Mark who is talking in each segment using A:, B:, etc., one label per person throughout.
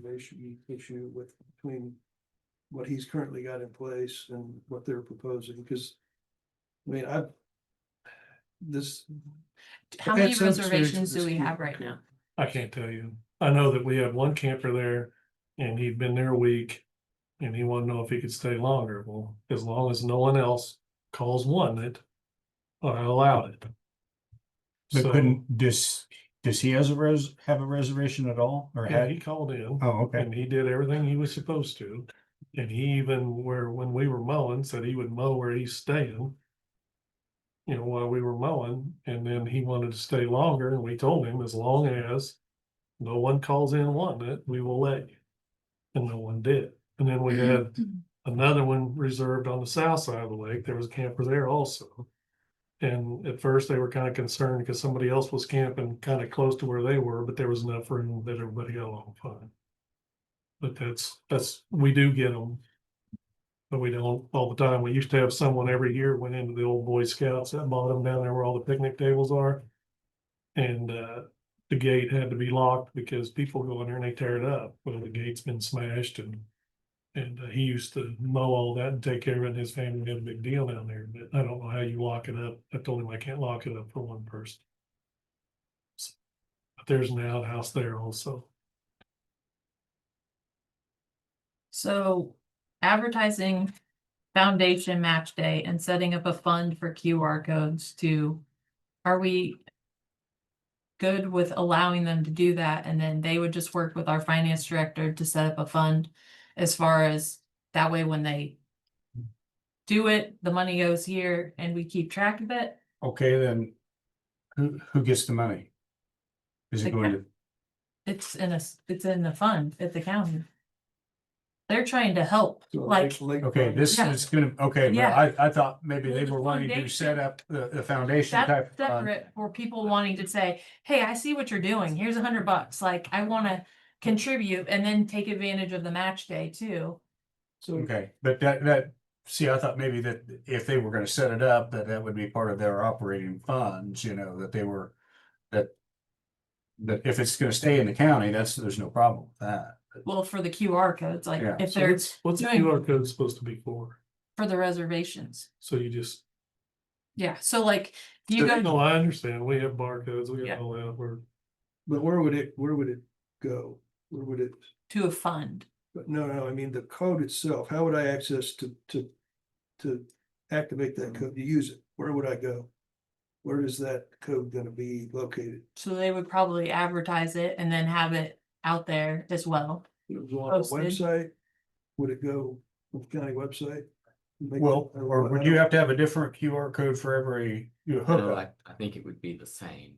A: preservation issue with, between what he's currently got in place and what they're proposing, because I mean, I've this,
B: How
A: I've
B: many
A: had some experience
B: reservations
A: with
B: do we
A: this
B: have
A: too.
B: right now?
C: I can't tell you. I know that we had one camper there and he'd been there a week. And he wanted to know if he could stay longer. Well, as long as no one else calls one it, I allowed it.
D: But
C: So,
D: couldn't, does, does he has a res, have a reservation at all or
C: Yeah,
D: had?
C: he called in
D: Oh, okay.
C: and he did everything he was supposed to. And he even where, when we were mowing, said he would mow where he's staying. You know, while we were mowing, and then he wanted to stay longer and we told him as long as no one calls in wanting it, we will let you. And no one did. And then we had another one reserved on the south side of the lake. There was a camper there also. And at first they were kind of concerned because somebody else was camping kind of close to where they were, but there was enough room that everybody got along fine. But that's, that's, we do get them. But we don't all the time. We used to have someone every year went into the old Boy Scouts at bottom down there where all the picnic tables are. And, uh, the gate had to be locked because people go in there and they tear it up. Well, the gate's been smashed and and uh, he used to mow all that and take care of it, and his family had a big deal down there, but I don't know how you lock it up. I told him I can't lock it up for one person. So, But there's an outhouse there also.
B: So advertising foundation match day and setting up a fund for QR codes to, are we good with allowing them to do that? And then they would just work with our finance director to set up a fund as far as that way when they do it, the money goes here and we keep track of it.
D: Okay, then who, who gets the money? Is
B: The
D: it going to,
B: It's in a, s- it's in the fund at the county. They're trying to help,
A: so
B: like,
A: Lake- Lake
D: okay,
A: County-
D: this
B: Yeah.
D: is gonna, okay, well,
B: Yeah.
D: I, I thought maybe
B: Well,
D: they
B: the
D: were wanting to
B: foundation-
D: set up the, the foundation type.
B: That's
D: of fund.
B: separate for people wanting to say, hey, I see what you're doing. Here's a hundred bucks. Like, I wanna contribute and then take advantage of the match day too.
A: So
D: Okay, but that, that, see, I thought maybe that if they were gonna set it up, that that would be part of their operating funds, you know, that they were, that that if it's gonna stay in the county, that's, there's no problem with that.
B: Well, for the QR codes, like
D: Yeah.
B: if
C: So
B: they're
C: what's- What's the
B: doing-
C: QR code supposed to be for?
B: for the reservations.
C: So you just,
B: Yeah, so like you go,
C: no, I understand. We have barcodes, we
B: Yeah.
C: have all that, we're,
A: But where would it, where would it go? Where would it,
B: to a fund.
A: but no, no, I mean, the code itself, how would I access to, to, to activate
B: Mm.
A: that code, to use it? Where would I go? Where is that code gonna be located?
B: So they would probably advertise it and then have it out there as well.
A: Would It go on our
B: Posted.
A: website? Would it go on the county website? Make-
D: Well,
A: I
D: or
A: don't-
D: would
A: I
D: you
A: don't-
D: have to have a different QR code for every you
E: No,
D: hookup?
E: I, I think it would be the same.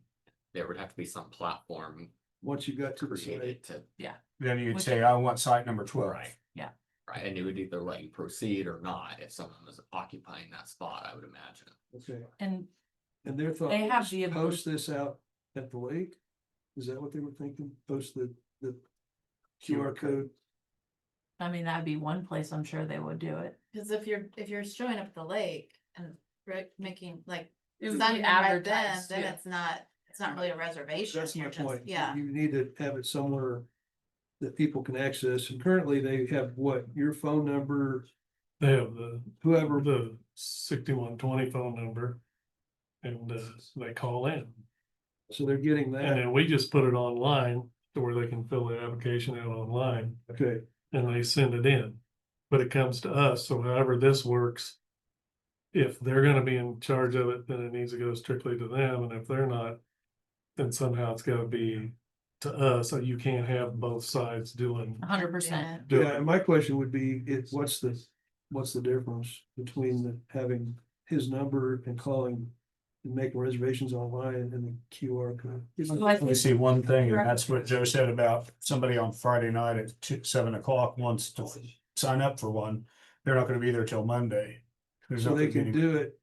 E: There would have to be some platform
A: Once you got to the site,
E: created to,
D: Then you'd
B: Which-
D: say, I want site number twelve.
E: Right.
B: Yeah.
E: right, and it would either let you proceed or not if someone was occupying that spot, I would imagine.
A: okay,
B: And
A: and their thought.
B: They have
A: was,
B: the ability-
A: Post this out at the lake? Is that what they were thinking? Post the, the QR code?
B: I mean, that'd be one place I'm sure they would do it.
F: Cause if you're, if you're showing up at the lake and re- making like,
B: It
F: it's
B: would
F: not
B: be
F: even right then,
B: advertised,
F: then
B: yeah.
F: it's not, it's not really a reservation.
A: That's my
F: you're just-
A: point.
F: Yeah,
A: You need to have it somewhere that people can access, and currently they have what, your phone number,
C: they have the,
A: whoever,
C: the sixty-one twenty phone number. And, uh, they call in.
A: so they're getting
C: And
A: that,
C: then we just put it online to where they can fill the application out online.
A: okay,
C: and they send it in. But it comes to us, so however this works. If they're gonna be in charge of it, then it needs to go strictly to them, and if they're not. Then somehow it's gotta be to us, so you can't have both sides doing.
B: A hundred percent.
F: Yeah.
C: doing
A: yeah, and my question would be, it's, what's the, what's the difference between the, having his number and calling? And making reservations online and the QR code?
B: So I
D: Let me
B: think-
D: see one thing,
B: Correct.
D: and that's what Joe said about somebody on Friday night at two, seven o'clock wants to sign up for one. They're not gonna be there till Monday. There's
A: So they can
D: nothing
A: do it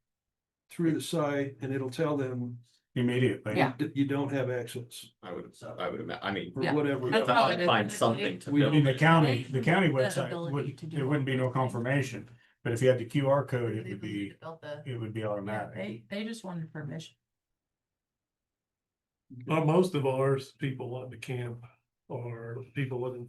A: through the site and it'll tell them
D: immediately.
B: Yeah.
A: that you don't have access
E: I would, I would, ima- I mean.
A: or
B: Yeah.
A: whatever.
B: That's how it is.
E: Find something to
D: We, I mean,
E: build.
D: the county, the county
B: The
D: website,
B: ability
D: would
B: to do
D: there wouldn't be no
B: that.
D: confirmation, but if you had the QR code, it would
F: they would need
D: be,
F: to build the-
D: it would be
B: Yeah,
D: automatic.
B: They, they just wanted permission.
C: Well, most of ours, people wanting to camp, or people looking